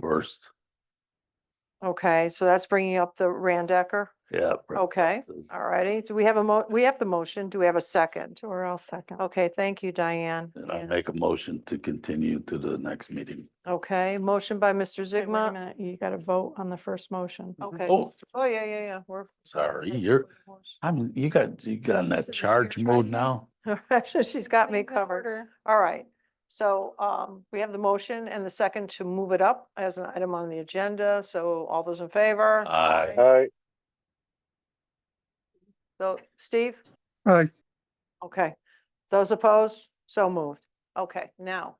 Worst, Okay, so that's bringing up the Randecker. yeah. bro- Okay, is- Oh, all righty. Do we have a mo, we have the motion. Do we have a second? We're all second. Okay, thank you, Diane. And I make a motion to continue to the next meeting. Okay, motion by Mr. Wait, wait a Zigma. minute, You got to vote on the first motion. Okay. Oh, Oh, yeah, yeah, yeah, we're. sorry, you're, I'm, you got, you got in that You're charge mode trying. now? She's got me covered. All right. So um, we have the motion and the second to move it up as an item on the agenda. So all those in favor? Aye. Aye. So Steve? Aye. Okay. Those opposed? So moved. Okay, now,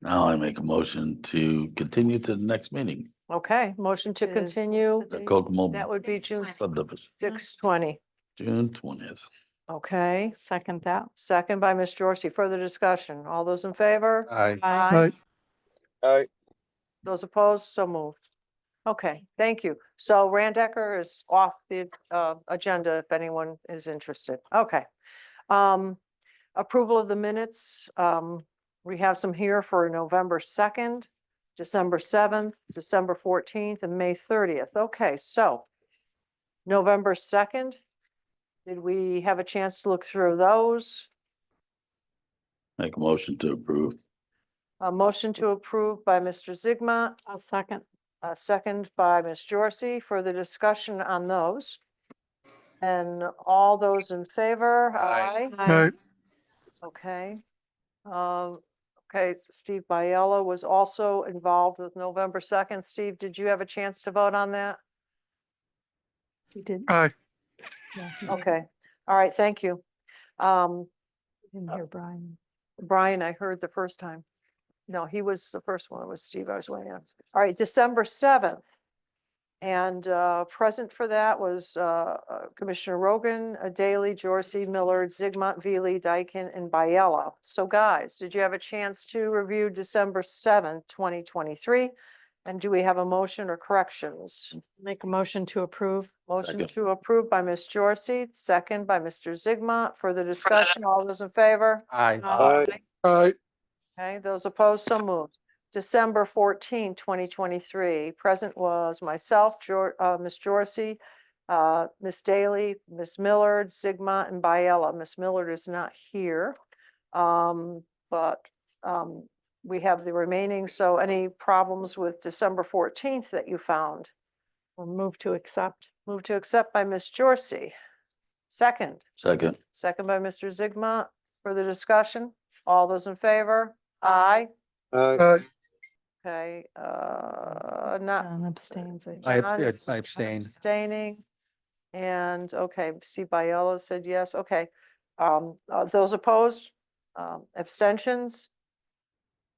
Now I make a motion to continue to the next meeting, okay, motion to Is- what's the continue. the Okay. Kokomo That would be June subdivision, six twenty. June twentieth. Okay, Second that. second by Ms. Dorsey. Further discussion. All those in favor? Aye. Aye. Aye. Those opposed? So moved. Okay, thank you. So Randecker is off the uh, agenda if anyone is interested. Okay. Um, Approval of the minutes. um, We have some here for November 2nd, December 7th, December 14th, and May 30th. Okay, so November 2nd, did we have a chance to look through those? Make a motion to approve. A motion to approve by Mr. Zigma, I'll second. a second by Ms. Jorsey. Further discussion on those? And all those in favor? Aye. Aye. Okay. Um, Okay, s- Steve Biella was also involved with November 2nd. Steve, did you have a chance to vote on that? You did. Aye. yeah, you did. Okay, all right, thank you. Um, Didn't hear Brian. Brian, I heard the first time. No, he was the first one, it was Steve, I was waiting on. All right, December seventh. And uh, present for that was uh, uh, Commissioner Rogan, uh, Daley, Jorsey, Millard, Zigmont, Veely, Dyken, and Biella. So guys, did you have a chance to review December seventh, twenty twenty-three? And do we have a motion or corrections? Make a motion to approve. Motion Second. to approve by Ms. Jorsey, second by Mr. Zigmont. Further discussion, all those in favor? Aye. Aye. Aye. Okay, those opposed, so moved. December 14, 2023, present was myself, Jor- uh, Ms. Jorsey, uh, Ms. Daly, Ms. Millard, Sigma, and Biella. Ms. Millard is not here. um, But um, we have the remaining, so any problems with December 14th that you found? We'll move to accept. Move to accept by Ms. Jorsey. Second, Second, second by Mr. Zigma. Further discussion? All those in favor? Aye. Aye. Okay, uh, not. John abstains. I Mm-hmm. I ab- John I is abstain. Abstaining. And, okay, Steve Biella said yes, okay. Um, uh, those opposed, um, abstentions?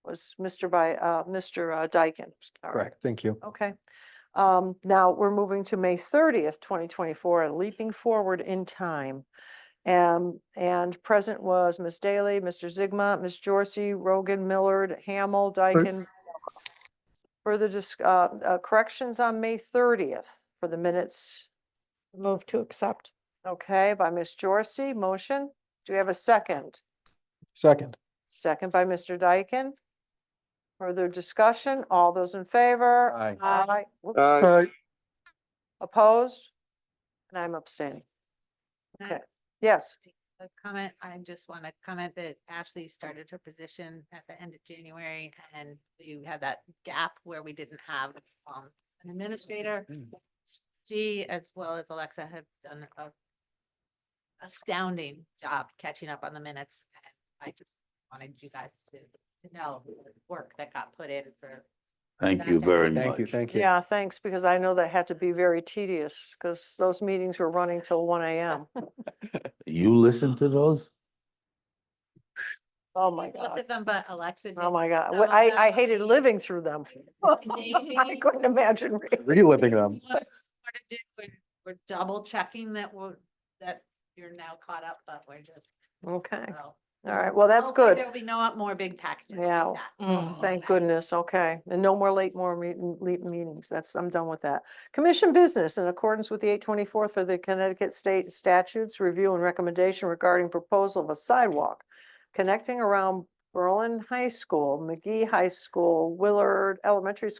Was Mr. By, uh, Mr. uh, Dyken. All right, Correct, thank you. Okay. Um, now we're moving to May thirtieth, twenty twenty-four, and leaping forward in time. Um, and present was Ms. Daly, Mr. Zigma, Ms. Jorsey, Rogan, Millard, Hamel, Dyken. Further dis, uh, uh, corrections on May thirtieth for the minutes, Move to accept. okay, by Ms. Jorsey, motion. Do we have a second? Second. Second by Mr. Dyken. Further discussion, all those in favor? Aye. Aye. Whoops. Aye. Opposed? And I'm abstaining. Can I Okay, yes, make a Comment, I just want to comment that Ashley started her position at the end of January and you had that gap where we didn't have um an administrator. She, as well as Alexa, have done a astounding job catching up on the minutes. and I just wanted you guys to to know the work that got put in for thank you very much. Thank you, thank you. yeah, thanks, because I know that had to be very tedious, because those meetings were running till one AM. You listen to those? Oh, my most God. of them, but Alexa. Oh, my Oh God. some Wh- of them I, I are hated really- living through them. I couldn't imagine. reading. Reliving them. What to do, we're- We're double checking that we're, that you're now caught up, but we're just, Okay, so. all right, well, that's hopefully good. There'll be no more big packages Yeah. like that. Mm. Thank goodness, okay. And no more late, more meet- late meetings. That's, I'm done with that. Commission business in accordance with the eight twenty-four for the Connecticut State Statutes Review and Recommendation regarding proposal of a sidewalk connecting around Berlin High School, McGee High School, Willard Elementary School.